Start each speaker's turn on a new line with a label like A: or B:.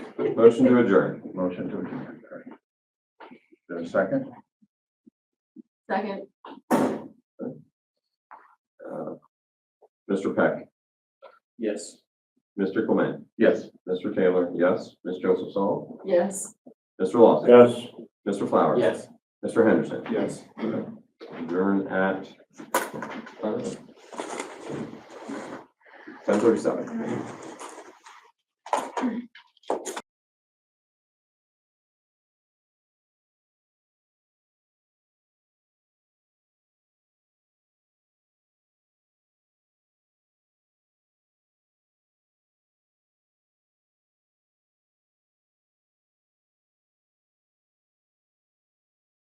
A: Motion to adjourn.
B: Motion to adjourn. All right. Is there a second?
C: Second,
A: Uh, Mr. Peck,
D: Yes.
A: Mr. Clement,
B: Yes.
A: Mr. Taylor, yes. Ms. Joseph Saul,
C: yes.
A: Mr. Lawson,
B: Yes.
A: Mr. Flowers.
D: Yes.
A: Mr. Henderson.
B: Yes.
A: Adjourn at uh, ten thirty-seven.